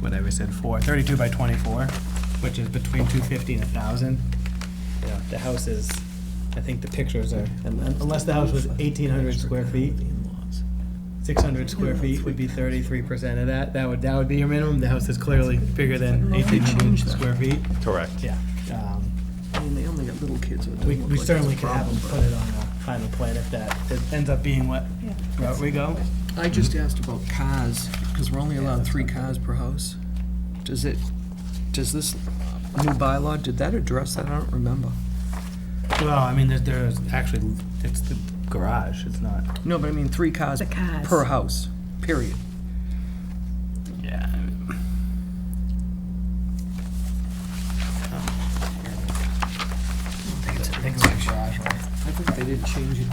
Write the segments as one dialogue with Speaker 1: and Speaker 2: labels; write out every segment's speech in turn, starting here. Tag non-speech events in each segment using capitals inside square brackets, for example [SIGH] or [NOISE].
Speaker 1: whatever I said, four, thirty-two by twenty-four, which is between two fifty and a thousand. You know, the house is, I think the pictures are, unless the house was eighteen hundred square feet, six hundred square feet would be thirty-three percent of that, that would, that would be your minimum, the house is clearly bigger than
Speaker 2: I don't know if they
Speaker 1: eighteen hundred
Speaker 2: changed that.
Speaker 1: square feet,
Speaker 3: Correct.
Speaker 1: yeah. Um,
Speaker 2: I mean, they only got little kids, so it doesn't
Speaker 1: We,
Speaker 2: look
Speaker 1: we
Speaker 2: like it's a
Speaker 1: certainly could have
Speaker 2: problem,
Speaker 1: them put it on a final plan if that, if it ends up being what route we go.
Speaker 2: but I just asked about cars, because we're only allowed three cars per house. Does it, does this new bylaw, did that address that? I don't remember.
Speaker 1: Well, I mean, there's, there's actually, it's the garage, it's not.
Speaker 2: No, but I mean, three cars
Speaker 4: The cars.
Speaker 2: per house, period.
Speaker 1: Yeah.
Speaker 2: I think it's-
Speaker 1: I think it's a garage, right?
Speaker 2: I think they didn't change it.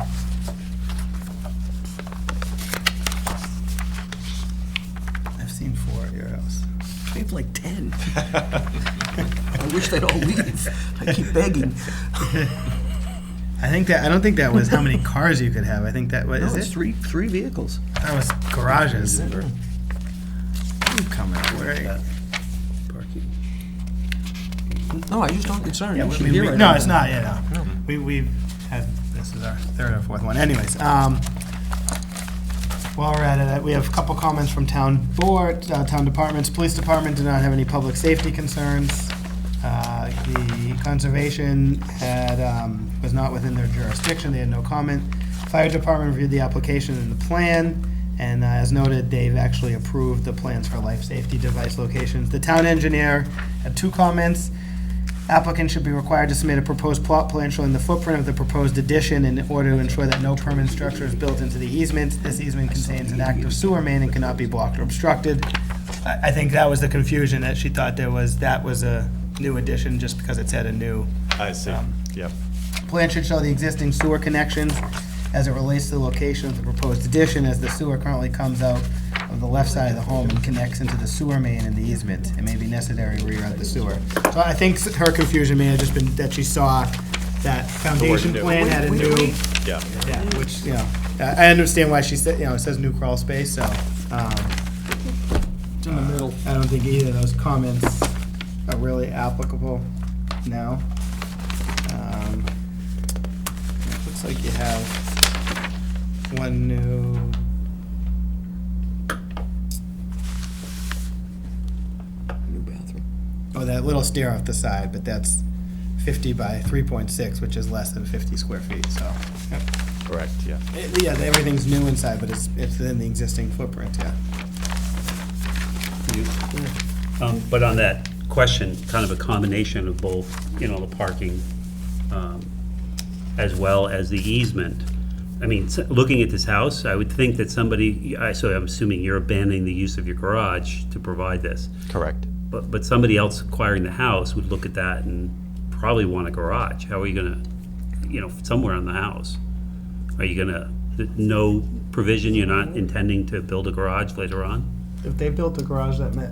Speaker 1: I've seen four at your house.
Speaker 2: They have like [LAUGHS] 10. I wish they'd all leave. I keep begging.
Speaker 1: I think that, I don't think that was how
Speaker 2: [LAUGHS]
Speaker 1: many cars you could have, I think that, what
Speaker 2: No,
Speaker 1: is
Speaker 2: it's
Speaker 1: it?
Speaker 2: three, three vehicles.
Speaker 1: That was garages. You coming, where?
Speaker 2: Parking. No, I just don't, it's not
Speaker 1: Yeah,
Speaker 2: an
Speaker 1: we-
Speaker 2: issue
Speaker 1: we-
Speaker 2: here.
Speaker 1: we-
Speaker 2: I
Speaker 1: No,
Speaker 2: don't
Speaker 1: it's
Speaker 2: think.
Speaker 1: not, yeah, no. We, we've had, this is our third or fourth one, anyways. um, While we're at it, uh, we have a couple comments from town board, uh, town departments, police department did not have any public safety concerns. Uh, The conservation had, um, was not within their jurisdiction, they had no comment. Fire department reviewed the application and the plan, and uh, as noted, they've actually approved the plans for life safety device locations. The town engineer had two comments. Applicant should be required to submit a proposed plot plan showing the footprint of the proposed addition in order to ensure that no permanent structure is built into the easement. This easement contains an active sewer main and cannot be blocked or obstructed. I, I think that was the confusion, that she thought there was, that was a new addition just because it said a new.
Speaker 3: I see,
Speaker 1: Um,
Speaker 3: yep.
Speaker 1: Plan should show the existing sewer connections as it relates to the location of the proposed addition, as the sewer currently comes out of the left side of the home and connects into the sewer main in the easement. It may be necessary to reroute the sewer. So I think her confusion may have just been that she saw that foundation
Speaker 3: new.
Speaker 1: plan had a
Speaker 2: Wait, wait,
Speaker 1: new,
Speaker 2: wait.
Speaker 3: Yeah,
Speaker 1: yeah, which, you know, I I understand why she said, you know, it says new crawl space, so, um, uh,
Speaker 2: It's in the middle.
Speaker 1: I don't think either of those comments are really applicable now. Um, it Looks like you have one new.
Speaker 2: New bathroom.
Speaker 1: Oh, that little stair off the side, but that's fifty by three point six, which is less than fifty square feet, so. yep.
Speaker 3: correct, yeah.
Speaker 1: It- Yeah, everything's new inside, but it's, it's in the existing footprint, yeah.
Speaker 5: Um, But on that question, kind of a combination of both, you know, the parking um, as well as the easement. I mean, s- looking at this house, I would think that somebody, I- so I'm assuming you're abandoning the use of your garage to provide this.
Speaker 3: Correct.
Speaker 5: But, but somebody else acquiring the house would look at that and probably want a garage. How are you gonna, you know, somewhere on the house? Are you gonna, th- no provision, you're not intending to build a garage later on?
Speaker 1: If they built a garage that met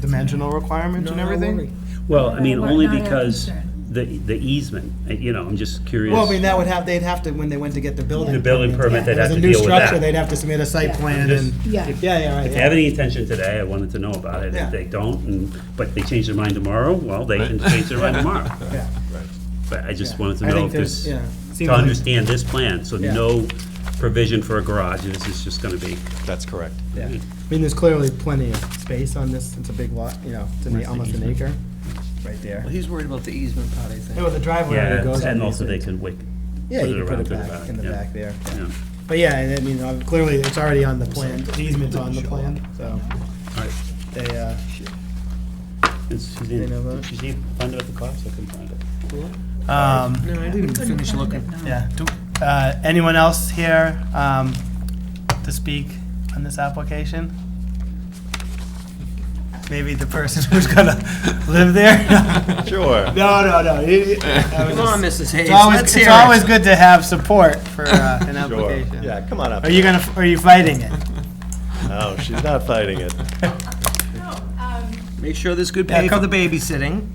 Speaker 1: dimensional requirements and everything?
Speaker 5: Well, I mean,
Speaker 4: Not-
Speaker 5: only
Speaker 4: not our
Speaker 5: because
Speaker 4: concern.
Speaker 5: the, the easement, uh, you know, I'm just curious.
Speaker 1: Well, I mean, that would have, they'd have to, when they went to get the building.
Speaker 5: The building permit,
Speaker 1: If it
Speaker 5: they'd
Speaker 1: was
Speaker 5: have
Speaker 1: a
Speaker 5: to
Speaker 1: new
Speaker 5: deal with
Speaker 1: structure, they'd
Speaker 5: that.
Speaker 1: have to submit a site plan
Speaker 5: Just-
Speaker 1: and,
Speaker 4: Yeah.
Speaker 1: yeah, yeah, right,
Speaker 5: If they have
Speaker 1: yeah.
Speaker 5: any intention today, I wanted to know about it.
Speaker 1: Yeah.
Speaker 5: If they don't, and, but they change their mind tomorrow, well, they can change their mind tomorrow.
Speaker 1: [LAUGHS] Yeah.
Speaker 5: But I just wanted to
Speaker 1: I
Speaker 5: know
Speaker 1: think
Speaker 5: if
Speaker 1: there's-
Speaker 5: this,
Speaker 1: yeah. Seems
Speaker 5: to
Speaker 1: like-
Speaker 5: understand this plan, so
Speaker 1: Yeah.
Speaker 5: no provision for a garage, this is just gonna be.
Speaker 3: That's correct.
Speaker 1: Yeah. I mean, there's clearly plenty of space on this, it's a big lot, you know, it's an- almost an acre, right there.
Speaker 2: Well, he's worried about the easement part, I
Speaker 1: Oh, Yeah,
Speaker 2: think.
Speaker 1: well, the driveway already
Speaker 5: Yeah,
Speaker 1: goes.
Speaker 5: and
Speaker 1: on
Speaker 5: also they
Speaker 1: these things.
Speaker 5: can wick.
Speaker 1: Yeah, you can put
Speaker 5: around
Speaker 1: it
Speaker 5: to the
Speaker 1: back in the
Speaker 5: yeah.
Speaker 1: back there.
Speaker 5: Yeah.
Speaker 1: But yeah, and I mean, uh, clearly, it's already on the plan, the easement's on the plan, so
Speaker 5: All right.
Speaker 1: they, uh,
Speaker 5: And
Speaker 1: They know
Speaker 5: Suzanne,
Speaker 1: about it?
Speaker 5: did Suzanne find out the cost? I couldn't find it.
Speaker 1: um,
Speaker 2: No, I didn't
Speaker 4: Couldn't
Speaker 2: finish
Speaker 4: find
Speaker 2: looking.
Speaker 4: it, no.
Speaker 1: Yeah, do, uh, anyone else here, um, to speak on this application? Maybe the person [LAUGHS] who's gonna live there? [LAUGHS]
Speaker 3: Sure.
Speaker 1: No, no, no.
Speaker 3: [LAUGHS]
Speaker 1: you- that was
Speaker 2: Come on,
Speaker 1: just-
Speaker 2: Mrs. Hayes,
Speaker 1: It's always,
Speaker 2: let's
Speaker 1: it's
Speaker 2: hear
Speaker 1: always
Speaker 2: it.
Speaker 1: good to have support for, uh, an
Speaker 3: Sure,
Speaker 1: application.
Speaker 3: yeah, come on up.
Speaker 1: Are you gonna, are you fighting it?
Speaker 3: No, she's not
Speaker 1: [LAUGHS]
Speaker 3: fighting it.
Speaker 2: Make sure there's good
Speaker 1: Yeah,
Speaker 2: pay for
Speaker 1: come-
Speaker 2: the babysitting.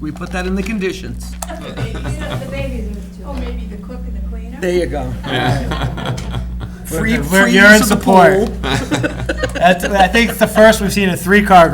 Speaker 2: We put that in the conditions.
Speaker 6: The babies are too. Oh, maybe the cook and the cleaner?
Speaker 2: There you go. Free,
Speaker 1: We're-
Speaker 2: free
Speaker 1: you're in
Speaker 2: use of the
Speaker 1: support.
Speaker 2: pool. [LAUGHS]
Speaker 1: That's, I think it's the first we've seen a three-car garage